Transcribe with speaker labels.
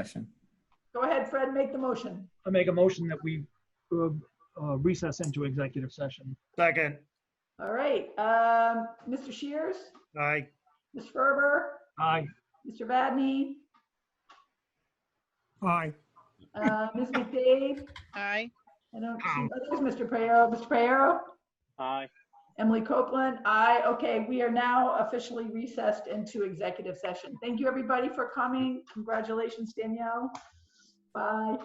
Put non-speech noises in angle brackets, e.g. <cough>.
Speaker 1: Question.
Speaker 2: Go ahead, Fred, make the motion.
Speaker 3: I make a motion that we uh, uh, recess into executive session.
Speaker 4: Second,
Speaker 2: All right, um, Mr. Shears,
Speaker 4: aye.
Speaker 2: Ms. Ferber,
Speaker 3: Aye.
Speaker 2: Mr. Vadney,
Speaker 4: Aye.
Speaker 2: uh,
Speaker 5: <laughs>
Speaker 2: Ms. McDade,
Speaker 5: Aye.
Speaker 2: I don't see others, Mr. Pereiro, Mr. Pereiro,
Speaker 6: Aye.
Speaker 2: Emily Copeland, aye. Okay, we are now officially recessed into executive session. Thank you, everybody, for coming. Congratulations, Danielle. Bye.